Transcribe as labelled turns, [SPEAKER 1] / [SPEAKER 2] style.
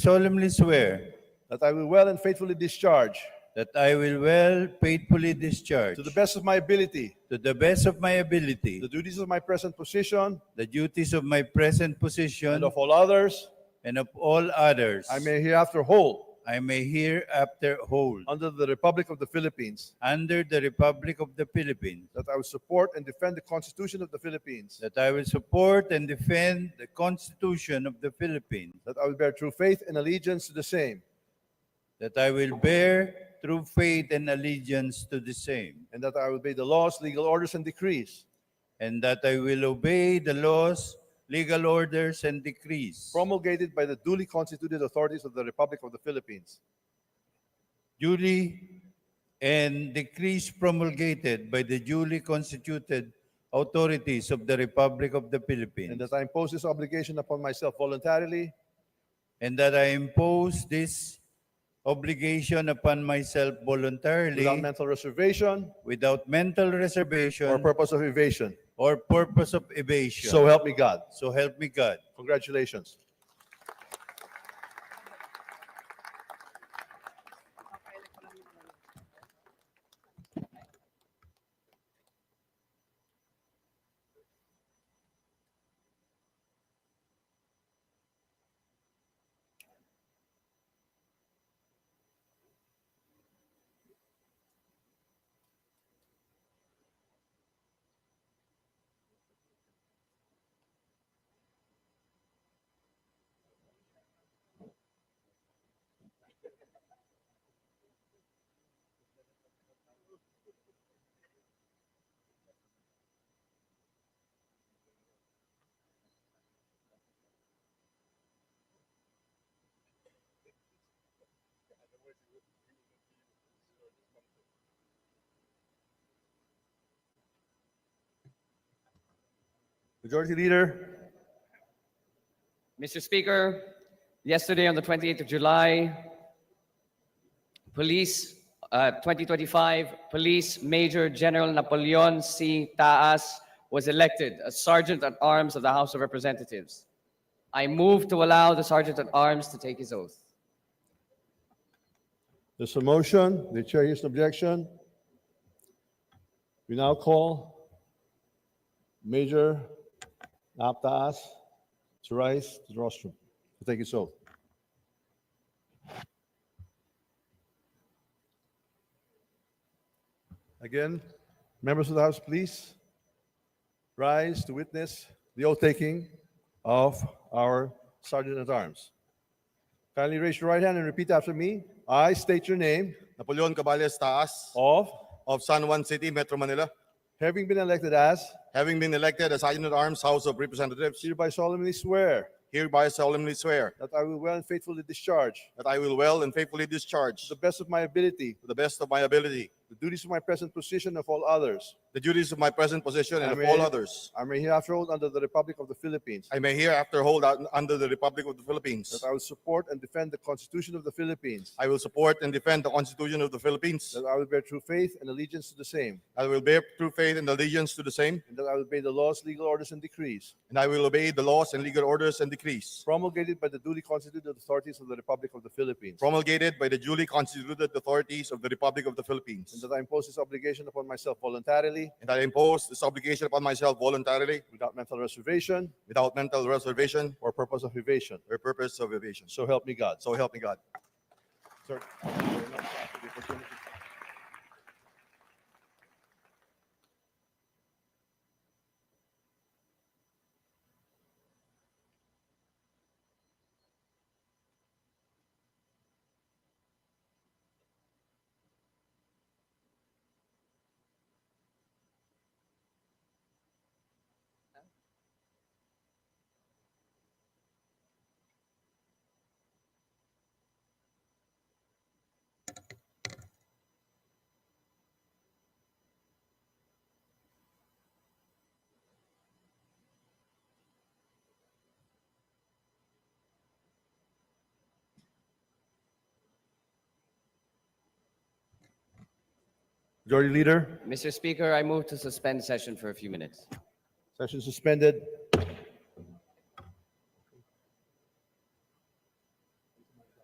[SPEAKER 1] solemnly swear
[SPEAKER 2] that I will well and faithfully discharge,
[SPEAKER 1] that I will well faithfully discharge
[SPEAKER 2] to the best of my ability,
[SPEAKER 1] to the best of my ability
[SPEAKER 2] the duties of my present position
[SPEAKER 1] the duties of my present position
[SPEAKER 2] and of all others
[SPEAKER 1] and of all others
[SPEAKER 2] I may hereafter hold
[SPEAKER 1] I may hereafter hold
[SPEAKER 2] under the Republic of the Philippines,
[SPEAKER 1] under the Republic of the Philippines
[SPEAKER 2] that I will support and defend the Constitution of the Philippines,
[SPEAKER 1] that I will support and defend the Constitution of the Philippines
[SPEAKER 2] that I will bear true faith and allegiance to the same,
[SPEAKER 1] that I will bear true faith and allegiance to the same
[SPEAKER 2] and that I will obey the laws, legal orders, and decrees
[SPEAKER 1] and that I will obey the laws legal orders and decrees
[SPEAKER 2] promulgated by the duly constituted authorities of the Republic of the Philippines,
[SPEAKER 1] duly and decrees promulgated by the duly constituted authorities of the Republic of the
[SPEAKER 2] and
[SPEAKER 1] Philippines,
[SPEAKER 2] that I impose this obligation upon myself voluntarily
[SPEAKER 1] and that I impose this obligation upon myself voluntarily
[SPEAKER 2] without mental reservation
[SPEAKER 1] without mental
[SPEAKER 2] or
[SPEAKER 1] reservation
[SPEAKER 2] purpose of evasion.
[SPEAKER 1] or purpose of evasion.
[SPEAKER 2] So help me God.
[SPEAKER 1] So help me God.
[SPEAKER 2] Congratulations. Majority Leader,
[SPEAKER 3] Mr. Speaker, yesterday on the 28th of July, Police, uh, 2025, Police Major General Napoleon C. Taas was elected as Sergeant at Arms of the House of Representatives. I move to allow the Sergeant at Arms to take his oath.
[SPEAKER 2] there's a motion. The chair hears no objection. We now call Major Aptas to rise to the rostrum to take his oath. Again, members of the House, please rise to witness the oath taking of our Sergeant at Arms. Kindly raise your right hand and repeat after me. I state your name
[SPEAKER 4] Napoleon Caballes Taas
[SPEAKER 2] of
[SPEAKER 4] of San Juan City, Metro Manila,
[SPEAKER 2] having been elected as
[SPEAKER 4] having been elected as Sergeant at Arms House of Representatives,
[SPEAKER 2] hereby solemnly swear
[SPEAKER 4] hereby solemnly swear
[SPEAKER 2] that I will well and faithfully discharge
[SPEAKER 4] that I will well and faithfully discharge
[SPEAKER 2] to the best of my ability
[SPEAKER 4] to the best of my ability
[SPEAKER 2] the duties of my present position of all others.
[SPEAKER 4] the duties of my present position and of
[SPEAKER 2] Amen.
[SPEAKER 4] all others.
[SPEAKER 2] I may hereafter hold under the Republic of the Philippines
[SPEAKER 4] I may hereafter hold out under the Republic of the Philippines.
[SPEAKER 2] that I will support and defend the Constitution of the Philippines
[SPEAKER 4] I will support and defend the Constitution of the Philippines.
[SPEAKER 2] that I will bear true faith and allegiance to the same
[SPEAKER 4] I will bear true faith and allegiance to the same,
[SPEAKER 2] and that I will obey the laws, legal orders, and decrees
[SPEAKER 4] and I will obey the laws and legal orders and decrees
[SPEAKER 2] promulgated by the duly constituted authorities of the Republic of the Philippines
[SPEAKER 4] promulgated by the duly constituted authorities of the Republic of the
[SPEAKER 2] and
[SPEAKER 4] Philippines.
[SPEAKER 2] that I impose this obligation upon myself voluntarily
[SPEAKER 4] And I impose this obligation upon myself voluntarily
[SPEAKER 2] without mental reservation
[SPEAKER 4] without mental reservation
[SPEAKER 2] or purpose of evasion.
[SPEAKER 4] or purpose of evasion.
[SPEAKER 2] So help me God.
[SPEAKER 4] So help me God.
[SPEAKER 2] Sir, thank you very much for the opportunity. Majority Leader,
[SPEAKER 3] Mr. Speaker, I move to suspend session for a few minutes.
[SPEAKER 2] session suspended.